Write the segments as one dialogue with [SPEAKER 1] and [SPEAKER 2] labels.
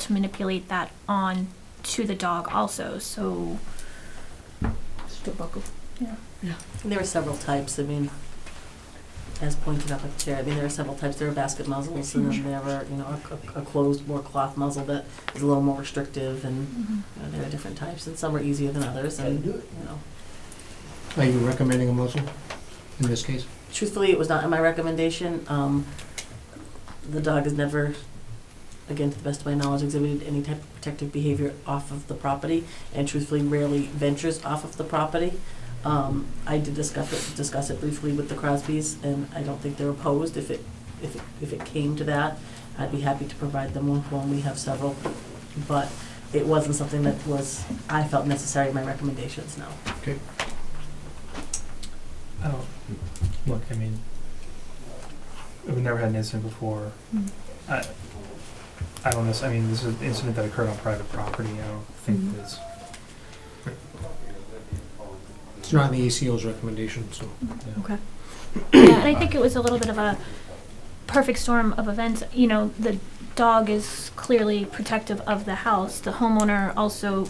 [SPEAKER 1] to manipulate that on to the dog also. So
[SPEAKER 2] And there are several types, I mean, as pointed out by the chair, I mean, there are several types, there are basket muzzles, and then there are, you know, a- a, a closed, more cloth muzzle that is a little more restrictive, and, you know, there are different types, and some are easier than others, and, you know.
[SPEAKER 3] Are you recommending a muzzle in this case?
[SPEAKER 2] Truthfully, it was not in my recommendation, um, the dog has never, again, to the best of my knowledge, exhibited any type of protective behavior off of the property, and truthfully rarely ventures off of the property. Um, I did discuss it, discuss it briefly with the Crosbys, and I don't think they're opposed. If it, if it, if it came to that, I'd be happy to provide them with one. We have several, but it wasn't something that was, I felt necessary in my recommendations, no.
[SPEAKER 4] I don't, look, I mean, we've never had an incident before.
[SPEAKER 1] Mm.
[SPEAKER 4] I, I don't know, I mean, this is an incident that occurred on private property, I don't think
[SPEAKER 5] Mm-hmm.
[SPEAKER 1] Mhm.
[SPEAKER 4] that's,
[SPEAKER 3] It's not in the ACO's recommendation, so.
[SPEAKER 1] yeah, and I think it was a little bit of a perfect storm of events. You know, the dog is clearly protective of the house. The homeowner also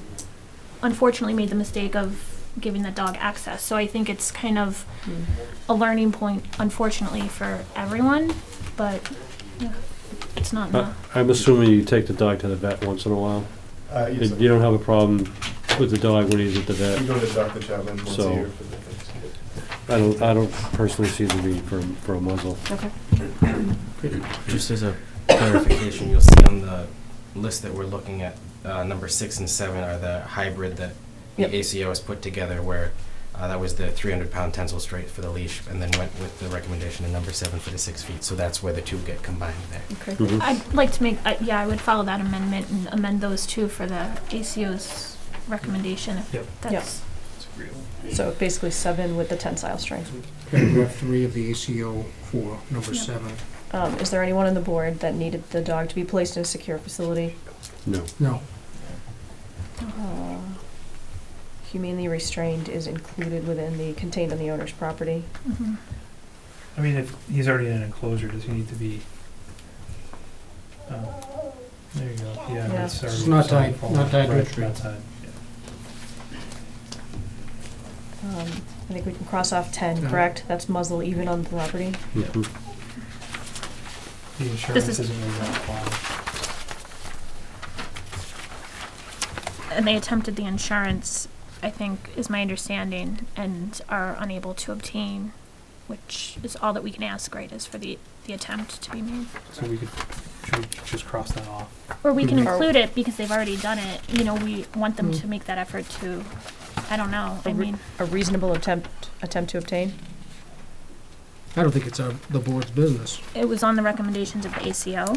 [SPEAKER 1] unfortunately made the mistake of giving the dog access. So I think it's kind of
[SPEAKER 5] Mm.
[SPEAKER 1] a learning point unfortunately for everyone, but yeah, it's not
[SPEAKER 6] Uh,
[SPEAKER 1] enough.
[SPEAKER 6] I'm assuming you take the dog to the vet once in a while.
[SPEAKER 7] Uh, yes,
[SPEAKER 6] You don't have a problem with the dog when he's at the
[SPEAKER 7] I-
[SPEAKER 6] vet.
[SPEAKER 7] we go to Dr. Chapman once
[SPEAKER 6] So-
[SPEAKER 7] a year for the things.
[SPEAKER 6] I don't, I don't personally see the need for, for a muzzle.
[SPEAKER 2] Okay.
[SPEAKER 8] Just as a clarification, you'll see on the list that we're looking at, uh, number six and seven are the hybrid that the
[SPEAKER 2] Yep.
[SPEAKER 8] ACO has put together where uh, that was the 300-pound tensile straight for the leash and then went with the recommendation in number seven for the six feet. So that's where the two get combined there.
[SPEAKER 6] Mhm.
[SPEAKER 1] I'd like to make, uh, yeah, I would follow that amendment and amend those two for the ACO's recommendation if
[SPEAKER 4] Yep.
[SPEAKER 1] that's.
[SPEAKER 4] it's agreeable.
[SPEAKER 5] So basically seven with the tensile strength.
[SPEAKER 3] Paragraph three of the ACO for number
[SPEAKER 1] Yeah.
[SPEAKER 3] seven.
[SPEAKER 5] Um, is there anyone on the board that needed the dog to be placed in a secure facility,
[SPEAKER 6] No.
[SPEAKER 3] No,
[SPEAKER 5] uh, humanely restrained is included within the, contained on the owner's property?
[SPEAKER 1] Mhm.
[SPEAKER 4] I mean, if he's already in an enclosure, does he need to be, um, there you go, yeah,
[SPEAKER 5] Yeah.
[SPEAKER 4] it's already.
[SPEAKER 3] It's not tied-
[SPEAKER 4] it's already
[SPEAKER 3] not tied to a
[SPEAKER 4] right,
[SPEAKER 3] tree.
[SPEAKER 4] Not tied,
[SPEAKER 5] Um, I think we can cross off ten,
[SPEAKER 4] Uh-huh.
[SPEAKER 3] Yeah.
[SPEAKER 5] correct? That's muzzle even on the property.
[SPEAKER 6] Mhm.
[SPEAKER 4] the insurance
[SPEAKER 1] is-
[SPEAKER 4] isn't really gonna apply.
[SPEAKER 1] And they attempted the insurance, I think, is my understanding, and are unable to obtain, which is all that we can ask, right, is for the, the attempt to be made.
[SPEAKER 4] So we could, should we just cross that off?
[SPEAKER 1] Or we can
[SPEAKER 3] Mhm.
[SPEAKER 1] include it because they've already done it, you know, we want them
[SPEAKER 3] Mm.
[SPEAKER 1] to make that effort to, I don't know, I
[SPEAKER 5] Or re-
[SPEAKER 1] mean,
[SPEAKER 5] A reasonable attempt, attempt to obtain?
[SPEAKER 3] I don't think it's our, the board's business.
[SPEAKER 1] it was on the recommendations of the ACO.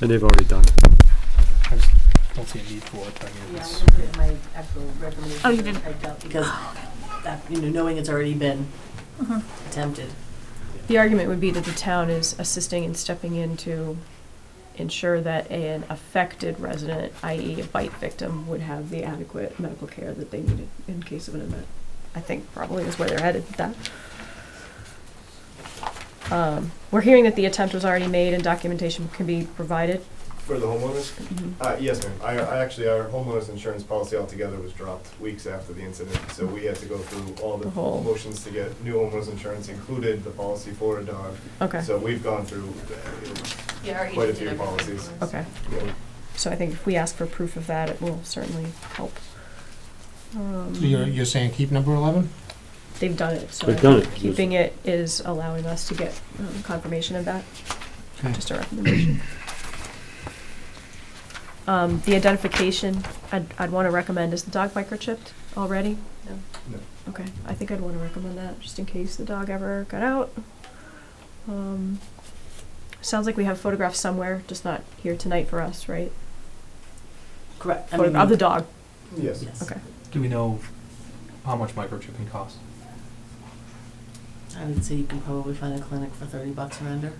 [SPEAKER 6] And they've already done it.
[SPEAKER 4] I just don't see a need for it, I mean,
[SPEAKER 2] Yeah,
[SPEAKER 4] it's.
[SPEAKER 2] I didn't put my actual recommendation.
[SPEAKER 1] Oh, you didn't?
[SPEAKER 2] I doubt- Because, that- you know, knowing it's already been
[SPEAKER 1] Mhm.
[SPEAKER 2] attempted.
[SPEAKER 5] The argument would be that the town is assisting and stepping in to ensure that an affected resident, i.e. a bite victim, would have the adequate medical care that they needed in case of an event. I think probably is where they're headed with that. Um, we're hearing that the attempt was already made and documentation can be provided.
[SPEAKER 7] For the homeowners? Uh, yes, ma'am. I, I actually, our homeowners insurance policy altogether was dropped weeks after the incident, so we had to go through all the
[SPEAKER 5] The whole-
[SPEAKER 7] motions to get new homeowners insurance included, the policy for a dog.
[SPEAKER 5] Okay,
[SPEAKER 7] So we've gone through, uh, Quite a few policies.
[SPEAKER 5] okay.
[SPEAKER 7] you know,
[SPEAKER 5] So I think if we ask for proof of that, it will certainly help. Um,
[SPEAKER 3] So you're, you're saying keep number eleven?
[SPEAKER 5] They've done it, so. I
[SPEAKER 6] They've done it.
[SPEAKER 5] keeping it is allowing us to get um, confirmation of that,
[SPEAKER 3] Okay.
[SPEAKER 5] just a recommendation. Um, the identification, I'd, I'd wanna recommend, is the dog microchipped already? No?
[SPEAKER 7] No.
[SPEAKER 5] Okay, I think I'd wanna recommend that, just in case the dog ever got out. Um, sounds like we have photographs somewhere, just not here tonight for us, right?
[SPEAKER 2] Correct. I
[SPEAKER 5] Photo- Of the
[SPEAKER 2] mean,
[SPEAKER 5] dog,
[SPEAKER 7] Yes.
[SPEAKER 2] Yes.
[SPEAKER 5] okay.
[SPEAKER 4] Do we know how much microchipping costs?
[SPEAKER 2] I would say you can probably find a clinic for thirty bucks or under.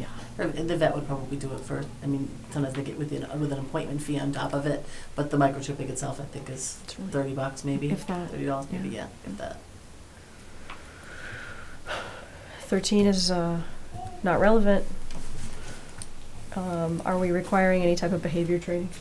[SPEAKER 5] Yeah.
[SPEAKER 2] Or The vet would probably do it for, I mean, sometimes they get within, with an appointment fee on top of it, but the microchipping itself, I think, is
[SPEAKER 5] It's really-
[SPEAKER 2] thirty bucks maybe,
[SPEAKER 5] If that.
[SPEAKER 2] thirty dollars maybe, yeah, if that.
[SPEAKER 5] Thirteen is uh, not relevant. um, are we requiring any type of behavior training?